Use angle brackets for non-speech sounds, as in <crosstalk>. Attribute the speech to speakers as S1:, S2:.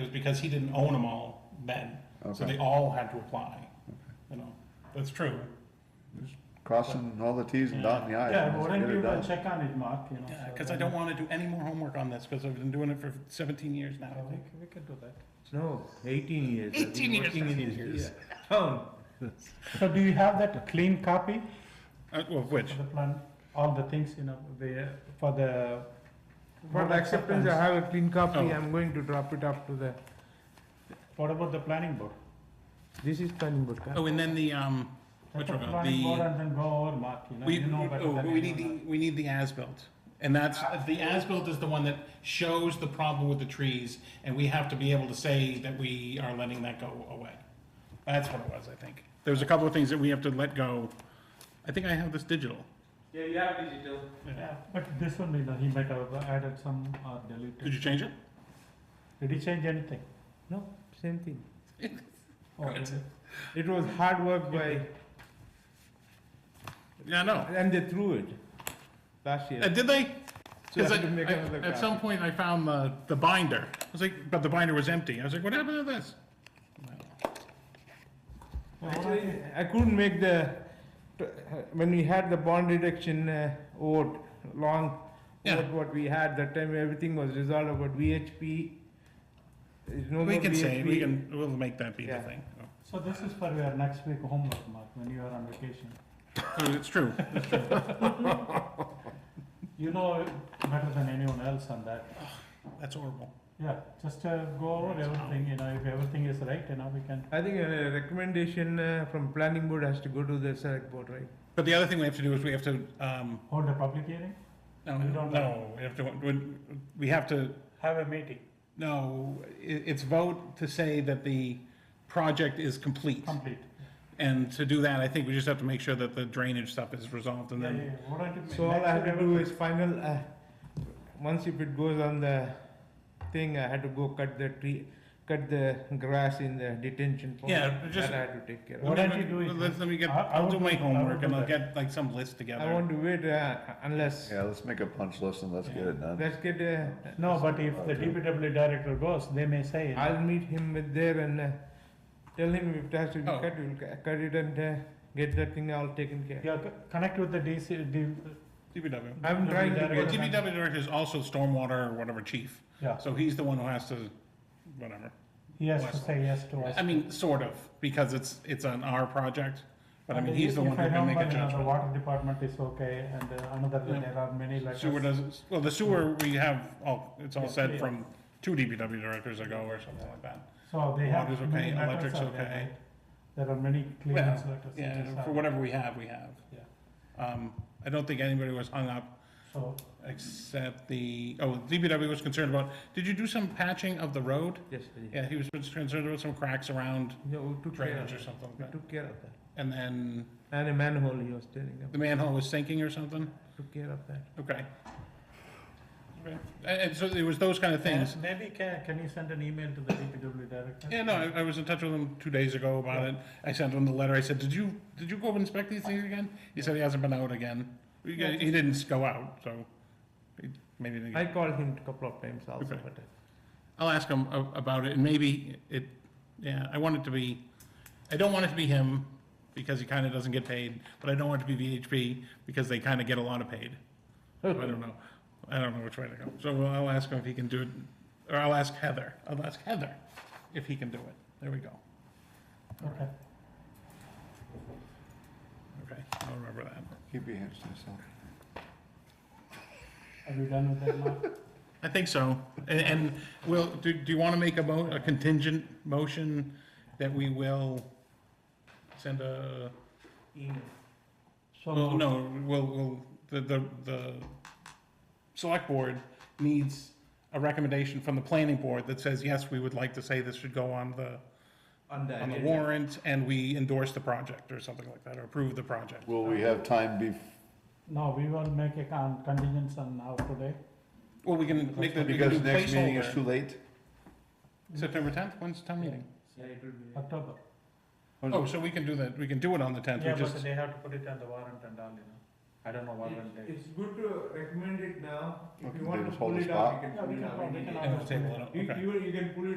S1: was because he didn't own them all then, so
S2: Okay.
S1: they all had to apply, you know, that's true.
S2: Crossing all the Ts and dotting the Is.
S3: Yeah,
S2: and just
S3: but why don't
S2: get it
S3: you uh,
S2: done.
S3: check on it, Mark, you know?
S1: Yeah,
S3: so
S1: cause I
S3: then-
S1: don't wanna do any more homework on this, cause I've been doing it for seventeen years now,
S3: Yeah,
S1: I
S3: We
S1: think.
S3: can, we can do that.
S4: No, eighteen years. I've been
S1: 18 years.
S4: working in Oh. this town.
S3: So do you have that clean copy
S1: Uh, of which,
S3: of the plan, all the things, you know, the, for the.
S5: For
S3: road
S5: the acceptance, I have a clean copy,
S1: Oh.
S5: I'm going to drop it up to the,
S3: What about the planning board?
S5: this is planning board.
S1: oh, and then the, um,
S3: Check
S1: which
S3: the
S1: one,
S3: Planning board
S1: the,
S3: and then go over, Mark, you know,
S1: we,
S3: you know better
S1: oh,
S3: than
S1: we need
S3: anyone
S1: the, we need the as-built. And that's, Uh, the as-built is the one that shows the problem with the trees, and we have to be able to say that we are letting that go away. That's what it was, I think. There's a couple of things that we have to let go. I think I have this digital.
S5: Yeah, you have digital.
S3: else. Yeah, But this one, you know, he might have added some or
S1: Did
S3: deleted.
S1: you change it?
S3: Did he change anything?
S5: No,
S1: <laughs>
S5: same thing.
S3: Oh,
S1: Right.
S3: okay.
S5: It was hard work by,
S1: Yeah, no.
S5: and they threw it last year.
S1: Uh, did they?
S5: So I
S1: 'Cause
S5: had to
S1: I-
S5: make
S1: I-
S5: another
S1: At some
S5: copy.
S1: point, I found the, the binder. I was like, but the binder was empty. I was like, what happened to this?
S5: Actually, I couldn't make the, when we had the bond reduction uh, vote, long
S1: Yeah.
S5: vote what we had, that time everything was resolved about VHP. There's no
S1: We
S5: more
S1: can say, we
S5: VHP.
S1: can, we'll make that be the
S5: Yeah.
S1: thing.
S3: So this is for your next week homework, Mark, when you are on vacation.
S1: Oh, It's
S3: <laughs>
S1: true.
S3: You know better than anyone else on that.
S1: That's horrible.
S3: Yeah, just uh, go over everything, you know, if everything is right, you know, we can.
S5: I think a recommendation uh, from planning board has to go to the select board, right?
S1: But the other thing we have to do is we have to, um,
S3: Hold a public hearing?
S1: no,
S3: We don't
S1: no, we have to, we- we have to,
S3: Have a meeting.
S1: no, i it's vote to say that the project is complete.
S3: Complete.
S1: And to do that, I think we just have to make sure that the drainage stuff is resolved and
S3: Yeah,
S1: then
S3: yeah, yeah. What I
S5: So all I have to do is final, uh, once if it goes on the thing, I had to go cut the tree, cut the grass in the detention pond.
S1: Yeah, just-
S5: That I had to take care of.
S3: Why
S1: Let
S3: don't
S1: me-
S3: you do it?
S1: Let let me get,
S3: I- I
S1: I'll
S3: will
S1: do my
S3: do- I will
S1: homework
S3: do
S1: and I'll
S3: that.
S1: get like some list
S5: I
S1: together.
S5: want to wait uh, unless,
S2: Yeah, let's make a punch list and let's get it done.
S5: let's get, uh,
S3: No, but if the DPW director goes, they may say, you know,
S5: I'll meet him with there and uh, tell him if it has to be
S1: Oh.
S5: cut, we'll cu- cut it and uh, get that thing all taken care.
S3: yeah, c- connect with the DC, D-
S1: DPW.
S5: I'm trying to
S1: Well,
S3: Well,
S5: get,
S3: DP
S1: DPW director is also stormwater or whatever chief,
S3: yeah,
S1: so he's the one who has to, whatever.
S3: he has to say yes to us.
S1: I mean, sort of, because it's, it's on our project, but I mean,
S3: And
S1: he's the
S3: if
S1: one who
S3: I
S1: can make a
S3: remember, you know, The
S1: judgment.
S3: water department is okay, and uh, another,
S1: Yeah.
S3: there are many letters.
S1: Sewer does, well, the sewer, we have, all it's all
S3: Yeah,
S1: said
S3: yeah.
S1: from two DPW directors ago or something like that.
S3: So they have
S1: Water's
S3: many
S1: okay,
S3: letters
S1: electric's
S3: out there,
S1: okay.
S3: right? There are many clearance letters. it is
S1: Yeah, for
S3: out.
S1: whatever we have, we have.
S3: Yeah.
S1: Um, I don't think anybody was hung up
S3: So,
S1: Except the, oh, DPW was concerned about, did you do some patching of the road?
S5: yes, yeah,
S1: Yeah, he was concerned about some cracks around
S5: we took care of
S1: drainage or
S5: that.
S1: something
S5: We
S1: like that.
S5: took care of that.
S1: And then
S5: And a manhole he was telling
S1: the
S5: about,
S1: manhole was sinking or something?
S5: took care of that.
S1: Okay. Okay. And, and so it was those kind of things.
S3: And maybe can, can you send an email to the DPW director?
S1: Yeah, no, I, I was in touch with him two days ago about it. I sent him the letter. I said, did you, did you go inspect these things again? He said he hasn't been out again. He, he didn't go out, so he maybe didn't. get-
S5: I called him a couple of times also,
S1: Okay.
S5: but. uh,
S1: I'll ask him a- about it, and maybe it, yeah, I want it to be, I don't want it to be him, because he kinda doesn't get paid, but I don't want it to be VHP, because they kinda get a lot of paid. So I don't know, I don't know which way to go, so I'll ask him if he can do it, or I'll ask Heather, I'll ask Heather if he can do it, there we go,
S3: Okay.
S1: okay, I'll remember that.
S2: Keep your hands to yourself.
S3: Are we done with that, Mark?
S1: I think so, and, and will, do, do you wanna make a mo, a contingent motion that we will send a
S3: So
S1: Well, Oh, no, we'll, we'll, the, the, the select board needs a recommendation from the planning board that says, yes, we would like to say this should go on the,
S5: On
S1: on the warrant, and we endorse the project, or something like that, or approve the project.
S2: Will we have time bef,
S3: No, we will make a con- contingents on how today.
S1: Well, we can make the, we can do
S2: because next meeting is too
S1: placeholder,
S2: late?
S1: September tenth, when's the town meeting?
S3: October.
S1: Oh, so we can do that, we can do it on the tenth, we just,
S3: they have to put it on the warrant and all, you know. I don't know
S5: It's good to recommend it now,
S2: Okay,
S5: if
S2: they
S5: you want
S2: just
S5: to
S2: hold
S5: pull
S2: the
S5: it off,
S2: spot?
S5: you
S3: Yeah, we
S5: can pull it
S3: can- we can always-
S5: off. any day.
S1: and we'll table it,
S5: You,
S1: okay.
S5: you, you can pull it